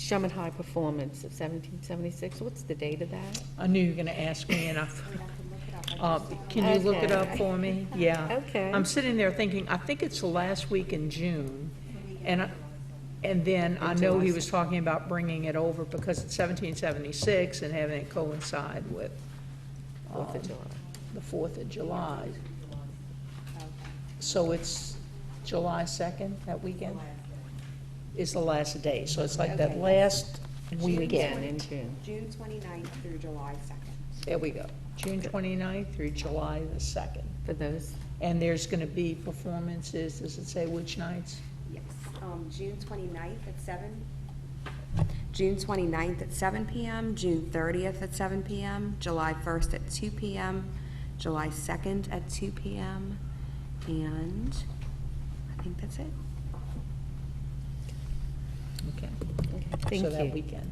Sherman High Performance of 1776, what's the date of that? I knew you were going to ask me, and I, Uh, can you look it up Okay. for me? Yeah. Okay. I'm sitting there thinking, I think it's the last week in June, and, I- and then I know he was talking about bringing it over because it's 1776 and having it coincide with Fourth um, of July. the Fourth of July. So it's July second, that weekend? Is the last day, so it's like that Okay. last Weekend weekend. in June. June 29th through July 2nd. There we go, June 29th through July the second. For those, And there's gonna be performances, does it say which nights? Yes, um, June 29th at 7? June 29th at 7 PM, June 30th at 7 PM, July 1st at 2 PM, July 2nd at 2 PM, and I think that's it. Okay. thank So that you. weekend.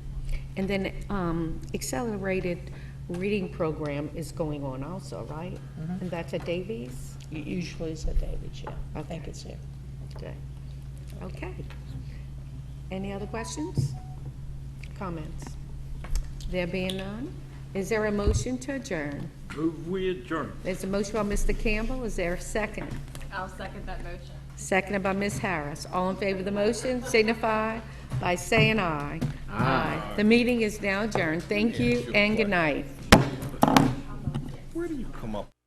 And then um, accelerated reading program is going on also, right? Mhm. And that's at Davies? It Usually it's at David's, yeah. I think Okay. it's there. Okay. Okay. Any other questions? Comments? There being none, is there a motion to adjourn? Move we adjourn. There's a motion by Mr. Campbell, is there a second? I'll second that motion. Seconded by Ms. Harris. All in favor of the motion signify by saying aye. Aye. The meeting is now adjourned. Thank you and good night. Where do you come up